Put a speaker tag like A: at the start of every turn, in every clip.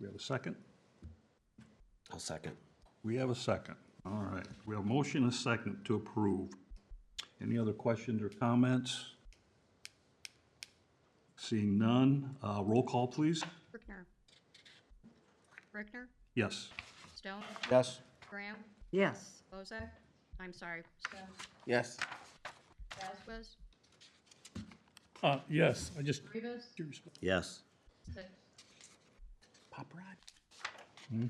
A: we have a second?
B: I'll second.
A: We have a second. All right. We have a motion and a second to approve. Any other questions or comments? Seeing none, uh, roll call, please.
C: Brickner. Brickner,
A: Yes.
C: Stone,
B: Yes.
C: Graham,
D: yes,
C: Bozak, I'm sorry, Stone,
B: Yes.
C: Vasquez,
E: Uh, yes, I just,
C: Rivas,
B: Yes.
C: six.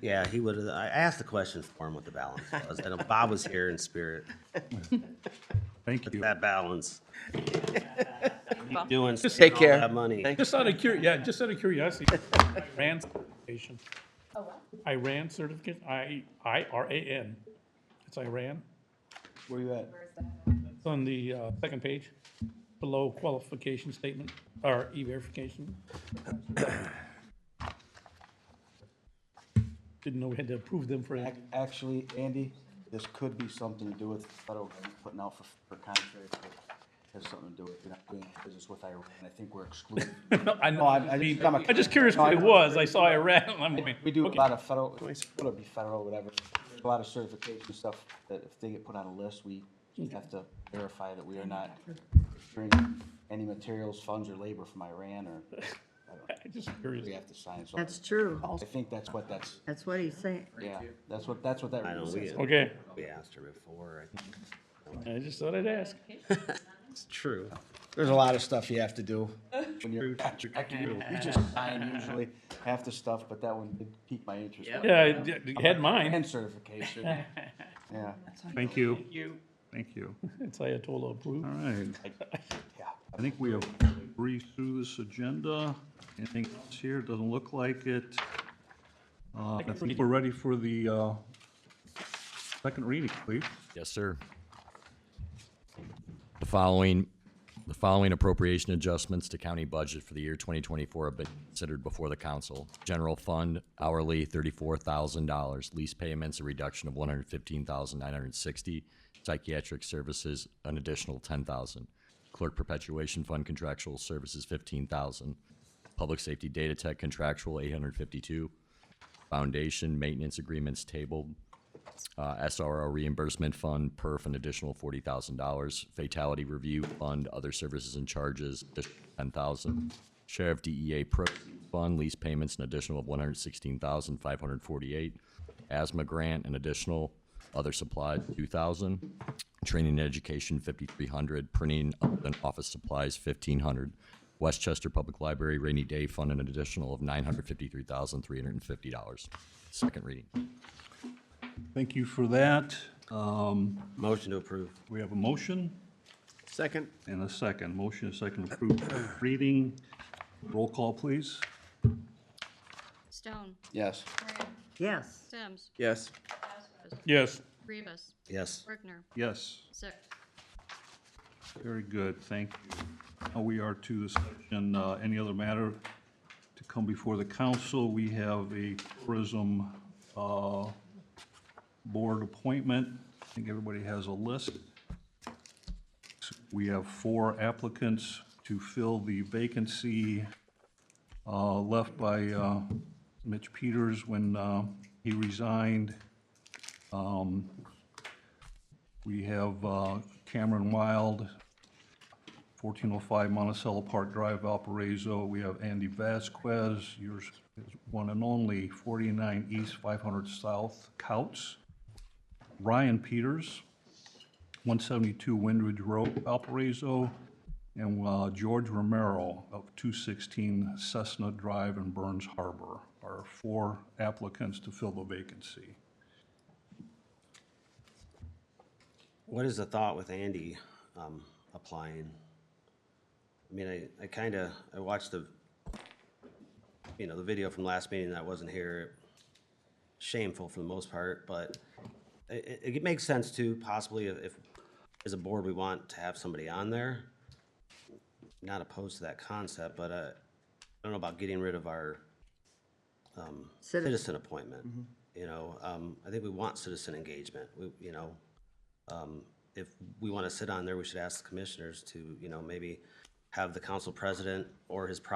B: Yeah, he would have, I asked the question for him what the balance was, and if Bob was here in spirit,
A: Thank you.
B: that balance. Keep Doing,
E: Just
B: spending
F: take
B: all that
F: care.
B: money.
F: Thank-
E: just out of cur, yeah, just out of curiosity, Iran certification. Iran certification, I, I R A N. It's Iran.
F: Where you at?
E: It's on the, uh, second page, below qualification statement, or e-verification. Didn't know we had to approve them for,
G: Ac- Actually, Andy, this could be something to do with the federal government putting out for, for contracts. It Has something to do with, you're not doing business with Iran. I think we're excluded.
E: no, I know,
G: No, I- I just- I'm a-
E: I'm just curious what it was, I saw Iran, I'm going.
G: We do a
E: okay.
G: lot of federal, whether it be federal, whatever, a lot of certification stuff that if they get put on a list, we have to verify that we are not bringing any materials, funds, or labor from Iran, or
E: I'm Just curious.
G: we have to sign something.
D: that's true.
G: I think that's what that's,
D: That's what he's saying.
G: yeah, that's what, that's what that
B: I know,
G: really
B: we,
G: says.
E: Okay,
B: we asked her before, I think
E: I just thought I'd ask.
B: it's true.
G: There's a lot of stuff you have to do. When you're contracting, you just sign usually half the stuff, but that one did pique my interest.
E: Yeah, it- it had mine.
G: And certification, yeah,
A: Thank you. Thank you.
E: It's Ayatollah approved.
A: All right.
G: yeah.
A: I think we have breezed through this agenda. Anything else here? Doesn't look like it. Uh, I think we're ready for the uh, second reading, please.
H: Yes, sir. The following, the following appropriation adjustments to county budget for the year twenty twenty-four have been considered before the council. General fund hourly thirty-four thousand dollars, lease payments a reduction of one hundred fifteen thousand nine hundred sixty, psychiatric services an additional ten thousand, clerk perpetuation fund contractual services fifteen thousand, public safety data tech contractual eight hundred fifty-two, foundation maintenance agreements tabled uh, SRO reimbursement fund, perf, an additional forty thousand dollars. Fatality review fund, other services and charges, ten thousand. Sheriff DEA pro E fund, lease payments, an additional of one hundred sixteen thousand five hundred forty-eight. Asthma grant, an additional, other supplies, two thousand. Training and education, fifty-three hundred. Printing and office supplies, fifteen hundred. Westchester Public Library rainy day fund, an additional of nine hundred fifty-three thousand three hundred and fifty dollars. Second reading.
A: Thank you for that. Um,
B: Motion to approve.
A: We have a motion
F: Second?
A: and a second. Motion and second approved. Reading, roll call, please.
C: Stone,
G: Yes,
C: Graham,
D: Yes,
C: Sims,
F: Yes.
C: Vasquez,
E: Yes.
C: Rivas,
B: Yes.
C: Brickner,
A: Yes,
C: six.
A: very good, thank you. Now we are to the section, uh, any other matter to come before the council? We have a tourism uh, board appointment. I think everybody has a list. We have four applicants to fill the vacancy uh, left by uh, Mitch Peters when uh, he resigned. Um, We have uh, Cameron Wild, 1405 Monticello Park Drive, Valparaiso. We have Andy Vasquez, yours is one and only, 49 East, 500 South, Couts. Ryan Peters, 172 Windridge Road, Valparaiso. And uh, George Romero of 216 Cessna Drive in Burns Harbor are four applicants to fill the vacancy.
B: What is the thought with Andy, um, applying? I mean, I, I kinda, I watched the, you know, the video from last meeting that I wasn't here. Shameful for the most part, but it, it, it makes sense too, possibly if, if, as a board, we want to have somebody on there. Not opposed to that concept, but, uh, I don't know about getting rid of our um,
D: citizen,
B: citizen appointment. You know, um, I think we want citizen engagement, we, you know. Um, if we wanna sit on there, we should ask the commissioners to, you know, maybe have the council president or his proxy